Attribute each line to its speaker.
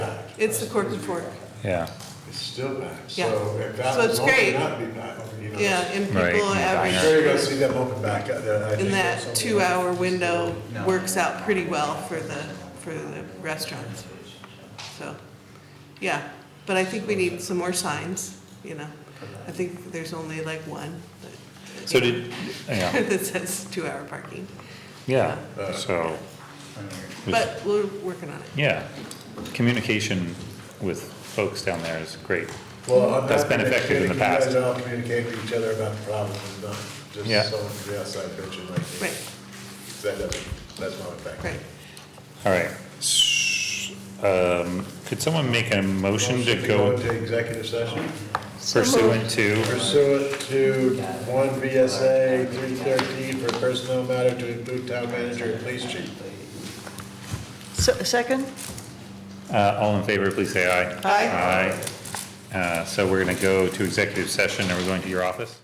Speaker 1: It's the cork and fork.
Speaker 2: yeah,
Speaker 3: It's still back,
Speaker 1: Yeah.
Speaker 3: so if that
Speaker 1: So it's
Speaker 3: was open
Speaker 1: great.
Speaker 3: up, it'd be back, you know.
Speaker 1: Yeah, and
Speaker 2: Right,
Speaker 1: people
Speaker 2: and
Speaker 1: average.
Speaker 3: I'm sure you're gonna see them open back up there. I
Speaker 1: in
Speaker 3: think
Speaker 1: that
Speaker 3: that's something-
Speaker 1: two-hour window works out pretty well for the, for the restaurants. So, yeah, but I think we need some more signs, you know? I think there's only like one that.
Speaker 2: so did, yeah,
Speaker 1: That says two-hour parking,
Speaker 2: yeah, so.
Speaker 1: but we're working on it.
Speaker 2: Yeah, communication with folks down there is great.
Speaker 3: Well, I'm
Speaker 2: That's
Speaker 3: happy
Speaker 2: been
Speaker 3: to
Speaker 2: effective in the
Speaker 3: communicate- You guys
Speaker 2: past.
Speaker 3: all communicate with each other about the problem, and not
Speaker 2: Yeah.
Speaker 3: just someone from the outside pitching like. me.
Speaker 1: Right,
Speaker 3: That doesn't, that's not effective.
Speaker 1: right.
Speaker 2: All right. S- Um, could someone make a motion to go
Speaker 3: into executive session
Speaker 2: pursuant to,
Speaker 3: pursuant to one VSA three thirteen for personnel matter to include town manager and police chief.
Speaker 4: Se- Second?
Speaker 2: uh, all in favor, please say aye.
Speaker 4: Aye.
Speaker 2: Aye. Uh, so we're gonna go to executive session, are we going to your office?